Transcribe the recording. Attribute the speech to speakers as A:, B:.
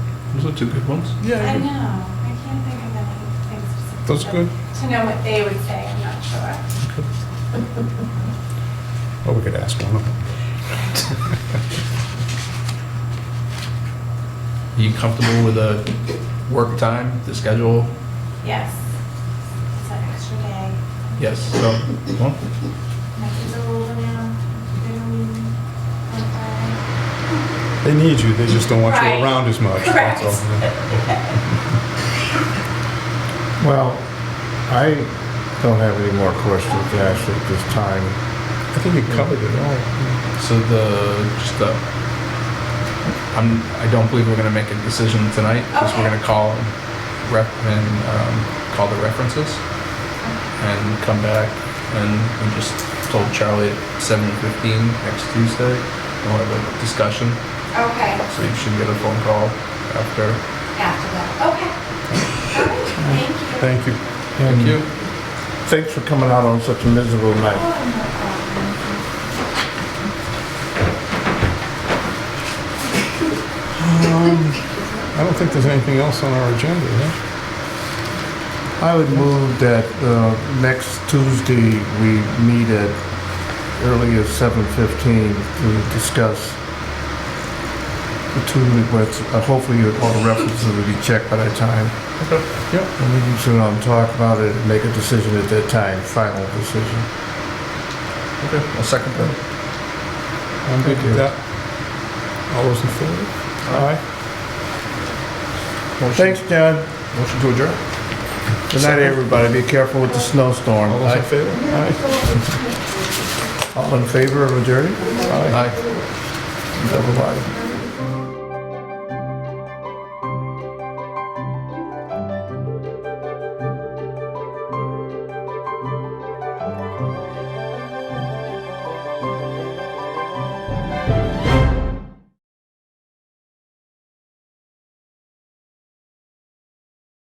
A: Those are two good ones.
B: I know, I can't think of anything specific.
A: That's good.
B: To know what they would say, I'm not sure.
A: Well, we could ask one of them. You comfortable with the work time, the schedule?
B: Yes. It's an extra day.
A: Yes, so, well,
B: My kids are older now. They don't even want to-
C: They need you, they just don't want you
B: Right.
C: around as much. that's all.
D: Well, I don't have any more questions to ask at this time.
C: I think you covered it all.
A: so the, just the, I'm, I don't believe we're gonna make a decision tonight, because we're
B: Okay.
A: gonna call rep, and, um, call the references, and come back, and we just told Charlie at seven fifteen next Tuesday, we'll have a discussion,
B: Okay,
A: so you should get a phone call after.
B: after that, okay. All right,
C: Thank
B: Thank you.
C: you.
A: Thank you.
D: Thanks for coming out on such a miserable
B: Oh,
D: night.
B: no problem.
C: I don't think there's anything else on our agenda, yeah?
D: I would move that uh, next Tuesday, we meet at early as 7:15 to discuss the two requests. Uh, Hopefully, all the references will be checked by that time.
A: Yep.
D: And we can sit down and talk about it and make a decision at that time, final decision.
A: Okay, I'll second that.
C: I'm good with that. All those in favor? Aye.
A: Motion-
D: Thanks, John.
A: Motion to adjourn.
D: Good night, everybody. Be careful with the snowstorm.
C: All those in favor? Aye.
D: All in favor of adjourned?
A: Aye.
D: Everybody.